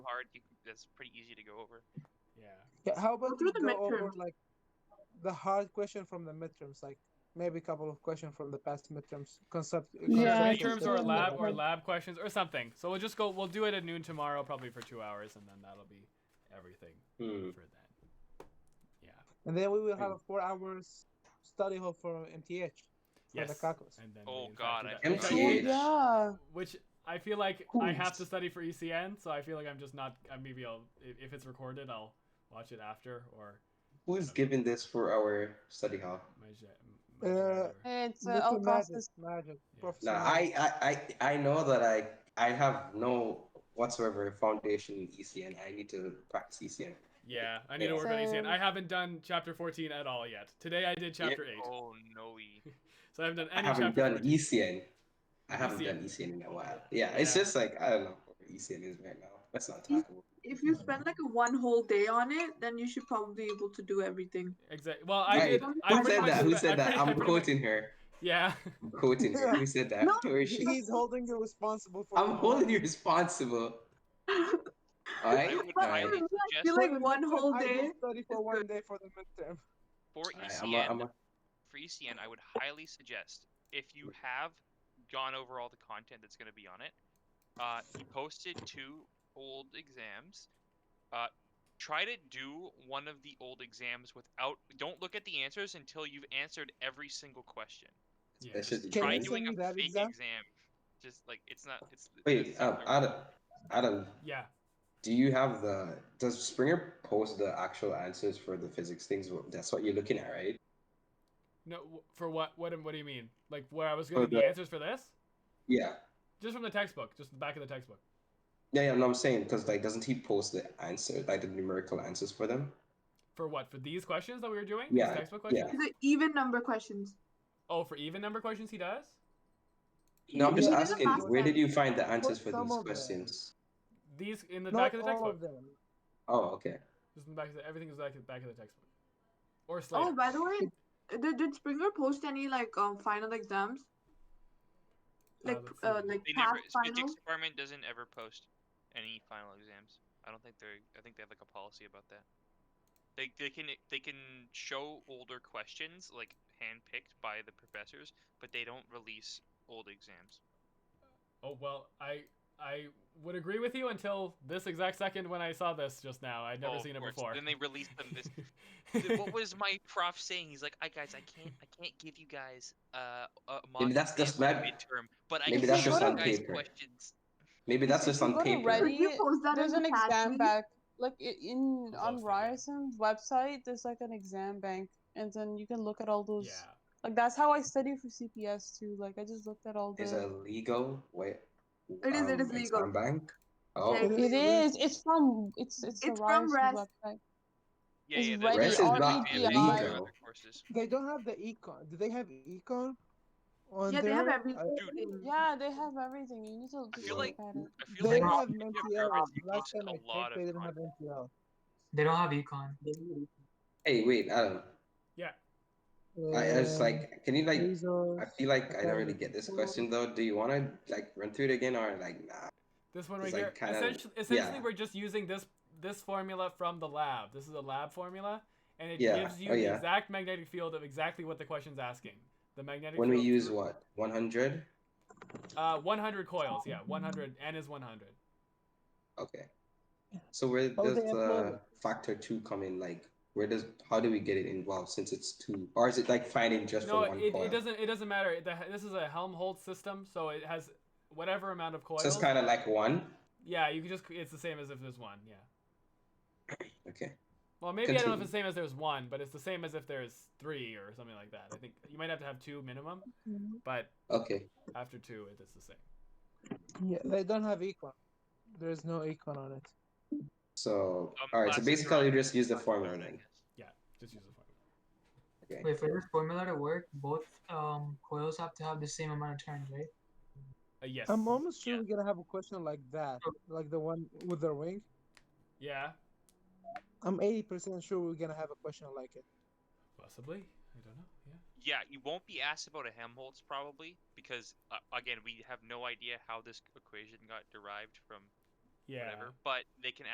card. You, can- that's pretty easy to go over. Yeah. Yeah, how about through we the go over midterms. like the hard question from the midterms, like maybe a couple of questions from the past midterms concept. yeah Yeah, I conceptual think midterms stuff. or so. lab or lab questions or something. So we'll just go. We'll do it at noon tomorrow, probably for two hours, and then that'll be everything Hmm. for then. Yeah. And then we will have a four hours study hall for MTH for yes. the calculus. And then Oh, we, in fact, God, do I that. can't Oh, Yes. yeah. Which I feel like I have to study for ECN, so I feel like I'm just not. I maybe I'll if if it's recorded, I'll watch it after or Who is giving this for our study hall? my. ja- my Uh, janitor. It's uh, Mr. Alcastas. Magic, magic, Yeah. Professor Now, Magic. I, I, I, I know that I, I have no whatsoever foundation in ECN. I need to practice E ECN. yeah, I need to Yeah. work on ECN. So- I haven't done chapter 14 at all yet. Today I did chapter Yeah. 8, Oh no. we- so I haven't done I any haven't chapter done 14. ECN. I haven't ECN. done ECN in a while. Yeah, it's E Yeah. just like I don't know where ECN is right now. Let's not You- talk about. If you spend like a one whole day on it, then you should probably be able to do everything. Exactly. Well, I Right. did. Who I Who pretty said much that? Who spent- I said that? pretty- I I'm pretty- quoting her. Yeah. I'm quoting her. Who said that? No. Where is she? He's holding you responsible for. I'm holding you responsible. All I right. would All highly right. Alright. suggest You're For like the one midterm, whole I day. will study for one day for the midterm. for All right, ECN. I'm a, I'm a, for ECN, I would highly suggest if you have gone over all the content that's going to be on it, uh, you posted two old exams. Uh, try to do one of the old exams without. Don't look at the answers until you've answered every single question. Yeah, that should just- be Can Try you true. doing do- send a me that fake exam? exam? Just like it's not. It's Wait, um, Adam, Adam, yeah. do you have the? Does Springer post the actual answers for the physics things? That's what you're looking at, right? No, w- for what? What? am- What do you mean? Like where I was going to the the- answers for this? Yeah. Just from the textbook, just the back of the textbook. Yeah, yeah, no, I'm saying because like, doesn't he post the answer, like the numerical answers for them? For what? For these questions that we were doing? Yeah, These textbook yeah. questions. The even number questions. Oh, for even number questions, he does. No, I'm just Yeah. asking, where did you find the answers for Some these of them. questions? These in the Not back of the all textbook. of them. Oh, okay. Just in the back of the, everything is back, back of the textbook. Or Slater. Oh, by the way, did, did Springer post any like um final exams? Like let's uh, see. like they never. past Physics finals? department doesn't ever post any final exams. I don't think they're. I think they have like a policy about that. They they can they can show older questions like handpicked by the professors, but they don't release old exams. Oh well, I I would agree with you until this exact second when I saw this just now. I'd never Oh, of seen it course. before. Then they release them. This, Th- what was my prof saying? He's like, "I guys, I can't, I can't give you guys uh, a mock Maybe that's exam just for the mad- midterm, but I maybe can that's give just you on guys paper. questions." Maybe that's just on go to paper. Reddit. Could you post that There's in an the chat, exam please? bank. Like i- in That's what I on was Ryerson's website, there's like an exam bank, and then you can look at all those. yeah. Like that's how I study for CPS too. Like I just looked at all Is the. it legal? Wait. It is- it is legal. exam Bank. Oh, Yeah. It is. It's from. It's it's, It's the from Ryerson Res. website. Yeah, Is yeah. Reddit there's Rest is exam not pages and legal. other courses. They don't have the econ. Do they have econ? On Yeah, they have there? everything. Dude. Yeah, they have everything. You need to just feel look like- at it. I feel They like don't have if you're MTL. nervous, you Last post time I a lot checked, they of Um, didn't have content. MTL. They don't have econ. Hey, wait, Adam. I, I was like, can you like? I feel like I don't really get this question though. Do you want to like run through it again or like nah? This one right It's here. like kinda- essentially, essentially yeah. we're just using this this formula from the lab. This is a lab formula, and it Yeah, gives you oh, the yeah. exact magnetic field of exactly what the question's asking. The magnetic When we field- use what 100? uh 100 coils. Yeah, 100. N is 100. Okay. So where Oh, does they the upload it. factor two come in? Like, where does how do we get it involved since it's two, or is it like finding just No, for one it, coil? it doesn't it doesn't matter. It- the- this is a Helmholtz system, so it has whatever amount of coils. So it's kind of like one. yeah, you can just it's the same as if there's one. Yeah. Okay. Well, maybe I don't know if Continue. it's the same as there's one, but it's the same as if there's three or something like that. I think you might have to have two minimum, but Okay. after two, it is the same. Yeah, they don't have econ. There's no econ on it. So Um, all right. So classes are basically, you on- just use the on formula Monday, I then. guess. Just use the formula. Okay. Wait, for this formula to work, both um, coils have to have the same amount of turns, right? Uh, yes. I'm almost sure Yeah. we're gonna have a question like that, like the one with the ring. Yeah, I'm 80% sure we're gonna have a question like it. possibly. I don't know. Yeah. Yeah, you won't be asked about a Helmholtz probably because uh, again, we have no idea how this equation got derived from Yeah. whatever. But they can